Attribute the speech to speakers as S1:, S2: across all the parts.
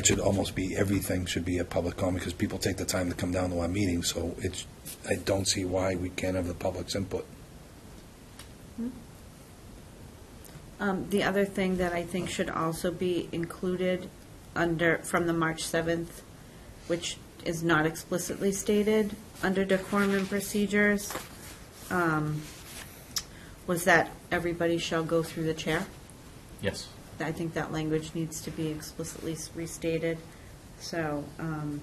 S1: It should almost be, everything should be a public comment, because people take the time to come down to our meetings, so it's, I don't see why we can't have the public's input.
S2: Um, The other thing that I think should also be included under, from the March 7th, which is not explicitly stated under decorum and procedures, um, was that everybody shall go through the chair.
S3: Yes.
S2: I think that language needs to be explicitly s- restated, so. um,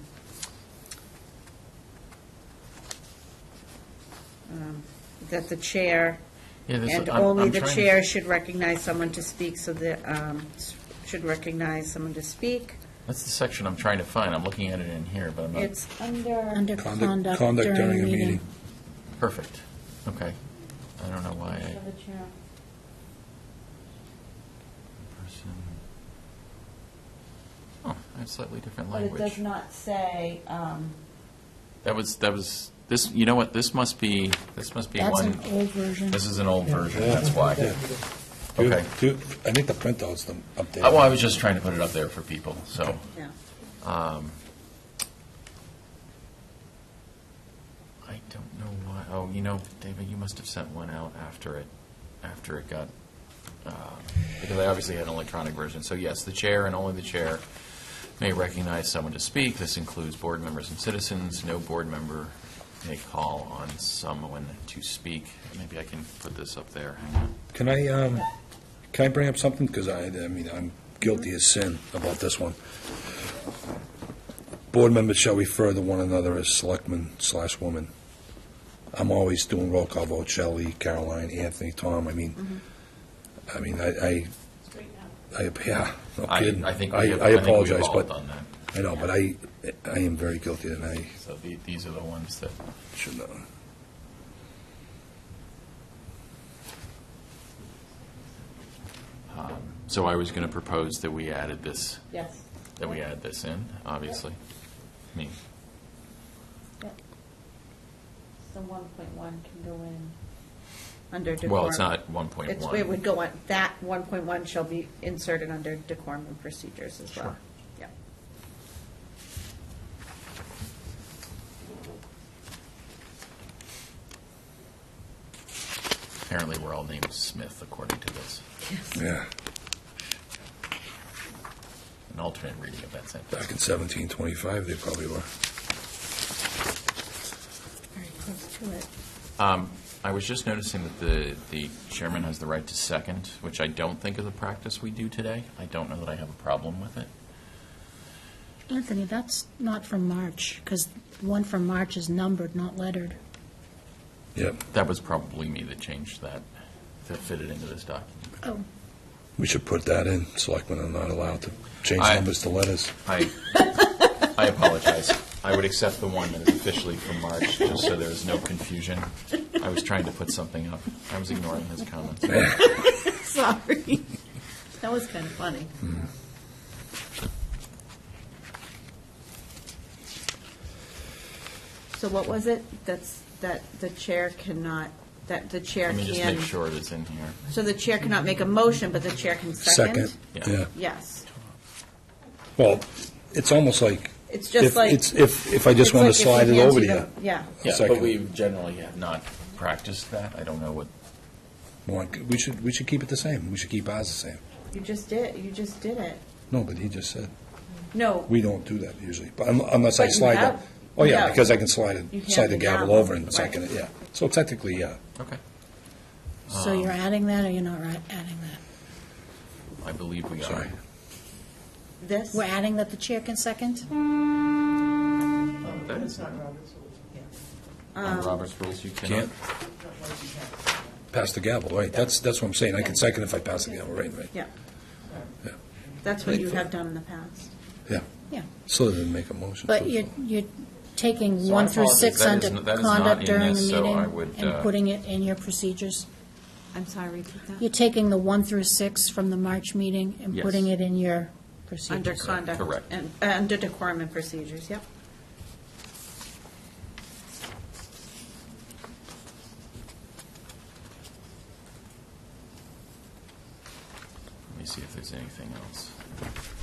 S2: um, That the chair
S3: Yeah, there's-
S2: and
S3: I'm-
S2: only
S3: I'm
S2: the
S3: trying to-
S2: chair should recognize someone to speak, so that, um, s- should recognize someone to speak.
S3: That's the section I'm trying to find. I'm looking at it in here, but I'm not,
S2: It's under,
S4: Under
S1: Conduct-
S4: conduct during a meeting.
S3: perfect. Okay. I don't know why I, person. Oh, I have slightly different
S2: but it does
S3: language.
S2: not say, um,
S3: That was, that was, this, you know what, this must be, this must be
S4: That's an
S3: one,
S4: old version.
S3: this is an old version, that's why.
S1: Yeah. Do you-
S3: Okay.
S1: do you- I think the printout's the updated.
S3: Uh, Well, I was just trying to put it up there for people, so.
S2: yeah.
S3: Um, I don't know why, oh, you know, David, you must have sent one out after it, after it got, uh, because I obviously had an electronic version. So yes, the chair and only the chair may recognize someone to speak. This includes board members and citizens. No board member may call on someone to speak. Maybe I can put this up there. Hang on.
S1: Can I, um, can I bring up something? Because I, I mean, I'm guilty as sin about this one. Board members shall refer to one another as selectmen slash woman. I'm always doing roll call vote, Shelley, Caroline, Anthony, Tom, I mean, I mean, I, I, I, yeah, no
S3: I,
S1: kidding.
S3: I think we
S1: I
S3: have-
S1: I
S3: I think we've
S1: apologize,
S3: all
S1: but,
S3: done that.
S1: I know, but I, I am very guilty and I
S3: So the- these are the ones that.
S1: should not.
S3: So I was going to propose that we added this,
S2: Yes.
S3: that we add this in, obviously. I mean,
S2: So one point one can go in. Under decorum.
S3: well, it's not
S2: It's, it
S3: 1.1.
S2: would go on, that one point one shall be inserted under decorum and procedures as well.
S3: Sure.
S2: Yeah.
S3: Apparently, we're all named Smith according to this,
S1: Yeah,
S3: an alternate reading of that
S1: back
S3: sentence.
S1: in seventeen twenty-five, they probably were.
S4: Very close to it.
S3: Um, I was just noticing that the, the chairman has the right to second, which I don't think is a practice we do today. I don't know that I have a problem with it.
S4: Anthony, that's not from March, because one from March is numbered, not lettered.
S1: Yep.
S3: That was probably me that changed that, that fitted into this document.
S4: Oh,
S1: We should put that in, selectmen are not allowed to change
S3: I-
S1: numbers to letters.
S3: I, I apologize. I would accept the one that is officially from March, just so there is no confusion. I was trying to put something up. I was ignoring his comments.
S2: Sorry. That was kind of funny. So what was it? That's, that the chair cannot, that the chair
S3: Let me just make
S2: can,
S3: sure it is in here.
S2: so the chair cannot make a motion, but the chair can second?
S1: Second,
S3: Yeah.
S1: yeah.
S2: Yes.
S1: Well, it's almost like,
S2: It's just
S1: if,
S2: like.
S1: it's, if, if I just
S2: it's
S1: want to
S2: like if we
S1: slide it
S2: hand
S1: over to you.
S2: the- Yeah.
S3: Yeah, but
S1: Second.
S3: we generally have not practiced that. I don't know what,
S1: Well, We should, we should keep it the same, we should keep ours the same.
S2: You just did, you just did it.
S1: No, but he just said,
S2: No,
S1: we don't do that usually, but un- unless I
S2: But you
S1: slide that.
S2: have-
S1: Oh, yeah,
S2: no.
S1: because I can slide
S2: You
S1: it,
S2: can
S1: slide the
S2: have
S1: gavel
S2: the
S1: over and
S2: gavel,
S1: second it,
S2: right.
S1: yeah. So technically, yeah,
S3: okay.
S4: so
S3: Oh.
S4: you're adding that, or you're not ri- adding that?
S3: I believe we are.
S1: sorry.
S2: this,
S4: We're adding that the chair can second?
S3: Oh, That is not On Robert's rules, you cannot.
S1: Can't pass the gavel, right, that's, that's what I'm saying, I can second if I pass the gavel, right, right,
S2: yeah. That's what you have done in the past.
S1: yeah.
S4: Yeah.
S1: So they didn't make a motion.
S4: But
S1: so-
S4: you're, you're taking
S3: So I
S4: one through
S3: apologize.
S4: six
S3: That
S4: under
S3: is n- that is not
S4: conduct
S3: in
S4: during the
S3: this, so I
S4: meeting
S3: would,
S4: and
S3: uh,
S4: putting it in your procedures?
S2: I'm sorry, repeat that.
S4: You're taking the one through six from the March meeting and
S3: Yes.
S4: putting it in your
S2: Under
S4: procedures?
S2: conduct.
S3: Correct.
S2: and- uh, Under decorum and procedures, yep.
S3: Let me see if there's anything else.